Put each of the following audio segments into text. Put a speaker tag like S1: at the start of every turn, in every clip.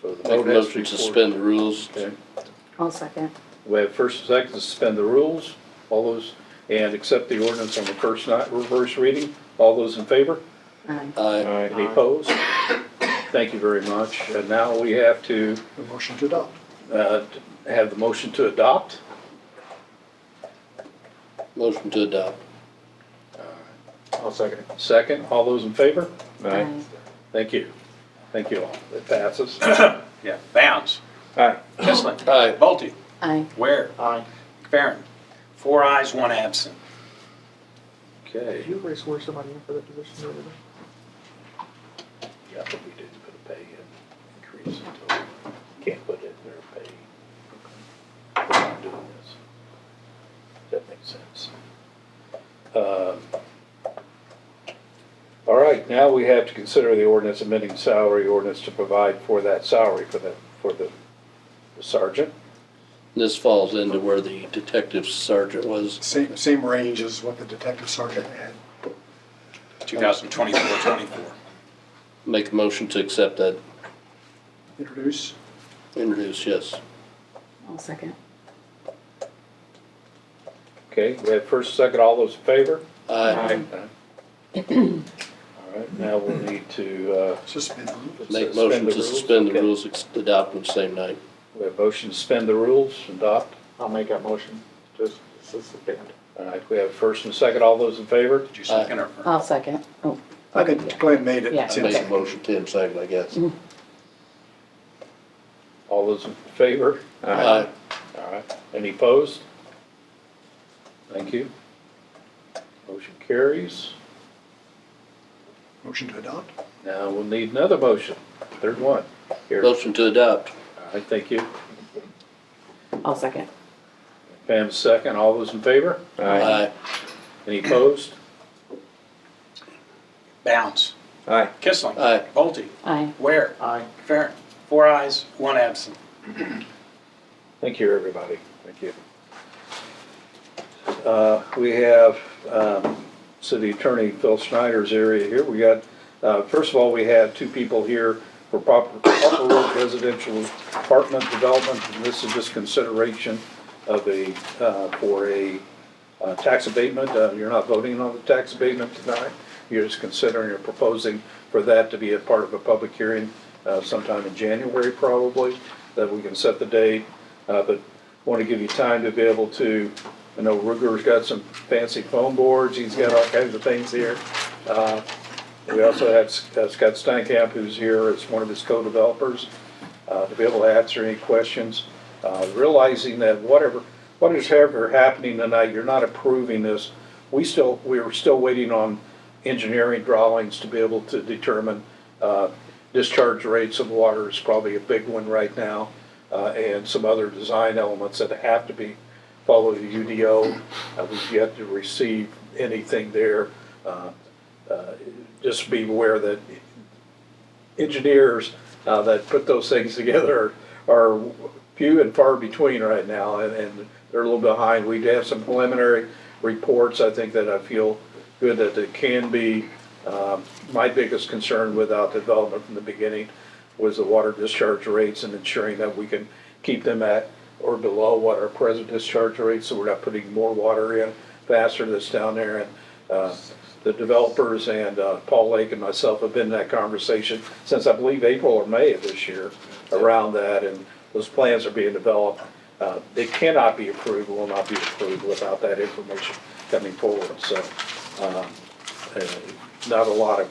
S1: So the
S2: Make a
S1: vote has
S2: motion to
S1: be four-
S2: suspend the rules.
S1: Okay.
S3: I'll second.
S1: We have first and second to suspend the rules, all those, and accept the ordinance on the first night, reverse reading. All those in favor?
S3: Aye.
S2: Aye.
S1: Any opposed? Thank you very much. And now we have to
S4: The motion to adopt.
S1: uh, have the motion to adopt.
S2: Motion to adopt.
S5: I'll second it.
S1: Second, all those in favor?
S3: Aye.
S1: Thank you. Thank you all. It passes.
S6: Yeah, Bounds,
S5: Aye.
S6: Kissling,
S2: Aye.
S6: Bolte,
S3: Aye.
S6: Ware,
S5: Aye.
S6: McFerrin. Four ayes, one absent.
S1: Okay.
S4: Did you already swear somebody in for that position the other day?
S1: Yeah, but we did put a pay in, increase in total. Can't put it in their pay. We're not doing this. That makes sense. Um, All right, now we have to consider the ordinance amending salary ordinance to provide for that salary for the, for the sergeant.
S2: This falls into where the detective sergeant was.
S4: Same, same range as what the detective sergeant had.
S6: 2024-24.
S2: Make a motion to accept that.
S4: Introduce.
S2: Introduce, yes.
S3: I'll second.
S1: Okay, we have first, second, all those in favor?
S2: Aye.
S1: All right, now we'll need to, uh,
S4: Suspend. the rules.
S2: Make
S1: Suspend
S2: motion
S1: the
S2: to
S1: rules,
S2: suspend the
S1: okay.
S2: rules, ex- adopt on the same night.
S1: we have motion to suspend the rules, adopt.
S5: I'll make that motion, just suspend.
S1: All right, we have first and second, all those in favor?
S6: Did you second or
S3: I'll second. Oh,
S4: I think Glenn made
S3: Yeah.
S4: it.
S2: I
S4: Tim.
S2: make a motion, Tim second, I guess.
S1: Mm-hmm. All those in favor?
S2: Aye.
S1: All right, any opposed? Thank you. Motion carries.
S4: Motion to adopt.
S1: Now we'll need another motion, third one. Here, all
S2: Motion to adopt.
S1: right, thank you.
S3: I'll second.
S1: Pam, second, all those in favor?
S2: Aye.
S1: Any opposed?
S6: Bounds,
S5: Aye.
S6: Kissling,
S2: Aye.
S6: Bolte,
S3: Aye.
S6: Ware,
S5: Aye.
S6: McFerrin. Four ayes, one absent.
S1: Thank you, everybody. Thank you. Uh, We have um, City Attorney Phil Schneider's area here. We got, uh, first of all, we have two people here for proper proper Road residential apartment development. And This is just consideration of a, uh, for a uh, tax abatement. Uh, You're not voting on the tax abatement tonight. You're just considering or proposing for that to be a part of a public hearing uh, sometime in January probably, that we can set the date. Uh, But want to give you time to be able to, I know Ruger's got some fancy foam boards, he's got all kinds of things here. Uh, We also have S- uh, Scott Steinkamp, who's here as one of his co-developers, uh, to be able to answer any questions, uh, realizing that whatever, what is ever happening tonight, you're not approving this. We still, we are still waiting on engineering drawings to be able to determine uh, discharge rates of water is probably a big one right now, uh, and some other design elements that have to be follow the UDO. Uh, We've yet to receive anything there. Uh, uh, Just be aware that engineers uh, that put those things together are few and far between right now, and, and they're a little behind. We have some preliminary reports, I think, that I feel good that it can be. Um, My biggest concern without development from the beginning was the water discharge rates and ensuring that we can keep them at or below what our present discharge rates, so we're not putting more water in faster that's down there. And uh, the developers and uh, Paul Lake and myself have been in that conversation since I believe April or May of this year around that, and those plans are being developed. Uh, They cannot be approved, will not be approved without that information coming forward, so um, uh, not a lot of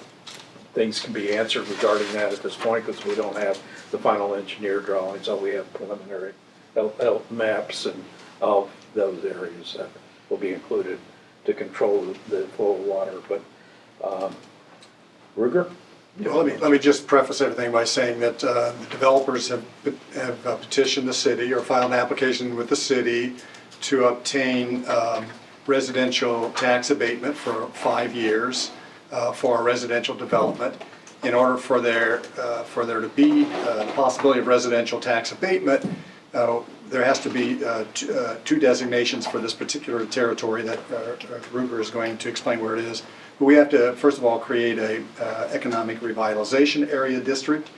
S1: things can be answered regarding that at this point, because we don't have the final engineer drawings, all we have preliminary el- el- maps and all those areas that will be included to control the flow of water, but, um, Ruger?
S4: Well, let me, let me just preface everything by saying that uh, the developers have have uh, petitioned the city or filed an application with the city to obtain um, residential tax abatement for five years uh, for our residential development. In order for there, uh, for there to be uh, the possibility of residential tax abatement, uh, there has to be uh, t- uh, two designations for this particular territory that uh, Ruger is going to explain where it is. But we have to, first of all, create a uh, economic revitalization area district,